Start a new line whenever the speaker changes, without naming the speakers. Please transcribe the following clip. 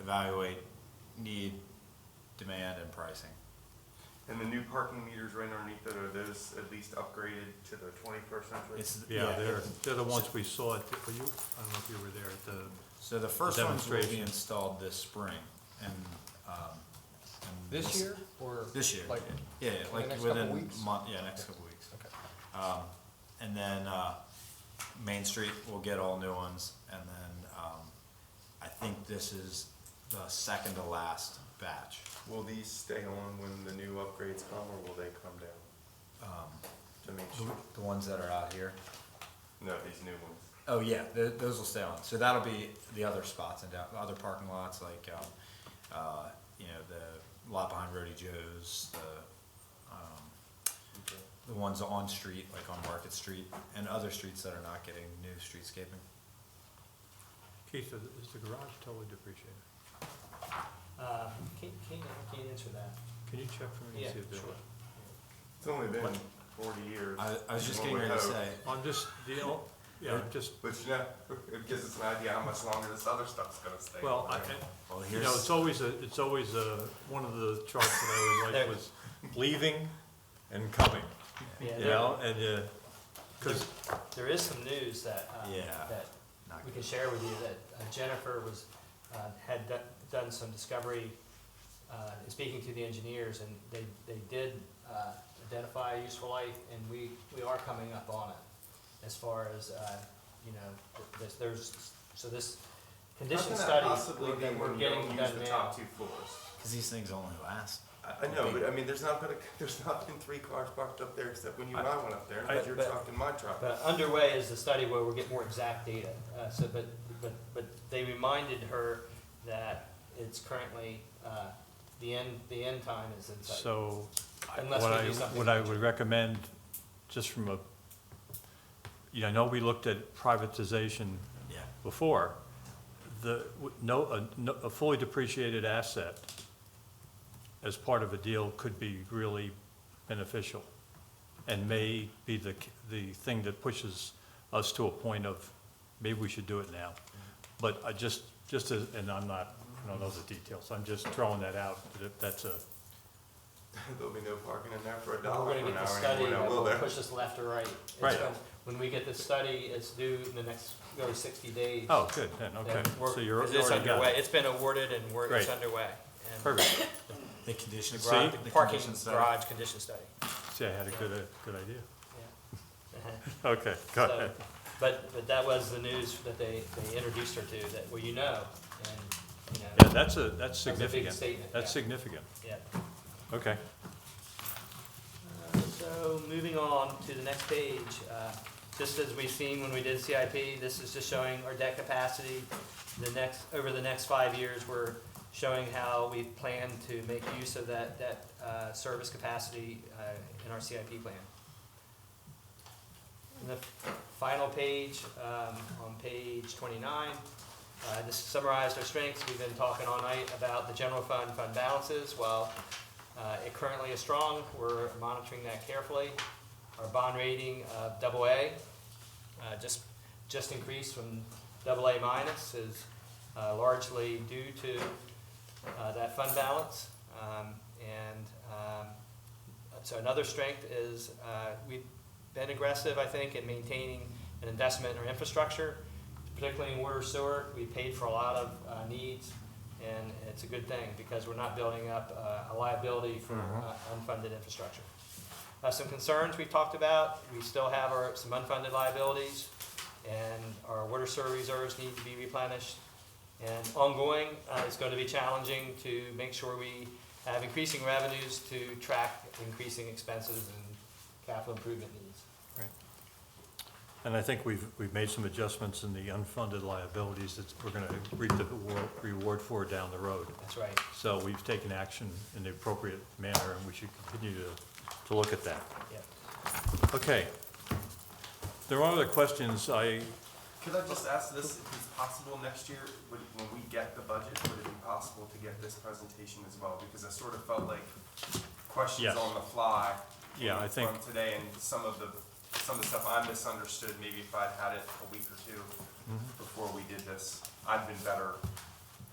evaluate need, demand, and pricing.
And the new parking meters right underneath it, are those at least upgraded to the twenty-first century?
It's-
Yeah, they're,
it-
they're the ones we saw at, the- were you, I don't know if you were there at the,
So the first ones will be
Demonstration.
installed this spring and, um. and
This year or?
This year,
Like,
yeah, yeah,
the
like
next couple
within
weeks?
month, yeah, next couple weeks.
okay.
Um, and then, uh, Main Street will get all new ones, and then, um, I think this is the second to last batch.
Will these stay on when the new upgrades come, or will they come down? To make sure,
The ones that are out here.
no, these new ones.
Oh, yeah, th- those will stay on, so that'll be the other spots and down, other parking lots, like, um, uh, you know, the lot behind Rody Joe's, the, um,
Okay.
the ones on street, like on Market Street, and other streets that are not getting new streetscaping.
Keith, is the garage totally depreciated?
Uh, can't, can't, I can't answer that.
Can you check for me
Yeah,
and see if they're?
sure.
It's only been
What?
forty years.
I, I was just
One
getting
would
ready to
hope.
say,
I'm just, the, o- yeah, I'm just,
But you know, it gives us an idea how much longer this other stuff's gonna stay.
well, I,
right?
I-
well,
you know, it's
here's,
always a, it's always a, one of the charts that I always liked was leaving and coming,
Yeah,
you
there-
know, and, uh 'cause cause
There is some news that, uh,
Yeah.
that
not
we
good.
can share with you that uh, Jennifer was, uh, had do- done some discovery, uh, in speaking to the engineers, and they, they did, uh, identify a useful life, and we, we are coming up on it, as far as, uh, you know, th- there's, there's, so this
How
condition
can that
study
possibly be
that we're
when you
getting
don't use
done
the
now.
top two floors?
cause these things only last.
I, I know, but I mean, there's not gonna, there's not been three cars parked up there except when you and I went up there,
I-
and your
but-
truck and my truck.
But underway is the study where we'll get more exact data. Uh, so, but, but, but they reminded her that it's currently, uh, the end, the end time is in sight.
So, I-
Unless
what
we
I,
do something
what I would recommend, just from a, you know, I know we looked at privatization
Yeah,
before, the, w- no, a, no- a fully depreciated asset as part of a deal could be really beneficial and may be the, c- the thing that pushes us to a point of, maybe we should do it now. But I just, just as, and I'm not, I don't know the details, I'm just throwing that out, that that's a,
There'll be no parking in there for a
We're
dollar an
gonna get the
hour
study
anyway, now
that
will
will
there?
push us left or right. It's
Right.
when- When we get the study, it's due in the next, really sixty days.
oh, good, then, okay.
Then we're-
So you're
It's
already got
underway.
it.
It's been awarded and we're, it's
Great.
underway. And
Perfect.
the condition,
the
the
garage- The parking
condition study.
garage condition study.
See, I had a good, uh, good idea.
Yeah.
Okay, go
So,
ahead.
But, but that was the news that they, they introduced her to, that, well, you know, and, you know.
Yeah, that's a, that's
That's a big
significant.
statement,
That's
yeah.
significant,
Yeah.
okay.
Uh, So, moving on to the next page, uh, just as we've seen when we did CIP, this is just showing our debt capacity. The next, over the next five years, we're showing how we plan to make use of that, that uh, service capacity uh, in our CIP plan. And The final page, um, on page twenty-nine, uh, this summarized our strengths. We've been talking all night about the general fund, fund balances. Well, uh, It currently is strong, we're monitoring that carefully. Our bond rating of double A, uh, just, just increased from double A minus is uh, largely due to uh, that fund balance. Um, And um, so another strength is uh, we've been aggressive, I think, in maintaining an investment in our infrastructure, particularly in water sewer. We paid for a lot of uh, needs and it's a good thing because we're not building up uh, a liability for uh, unfunded infrastructure. Uh, Some concerns we've talked about, we still have our, some unfunded liabilities, and our water sewer reserves need to be replenished. And ongoing, uh, it's going to be challenging to make sure we have increasing revenues to track increasing expenses and capital improvement needs.
And I think we've, we've made some adjustments in the unfunded liabilities that we're gonna reap the reward- reward for down the road.
That's right.
So we've taken action in the appropriate manner, and we should continue to, to look at that.
Yep.
Okay. There are other questions I,
Could I just ask this, if it's possible next year, would, when we get the budget, would it be possible to get this presentation as well? Because I sort of felt like questions
Yes.
on the fly.
Yeah, I think-
From today and some of the, some of the stuff I
Mm-hmm.
misunderstood, maybe if I'd had it a week or two before we did this, I'd been better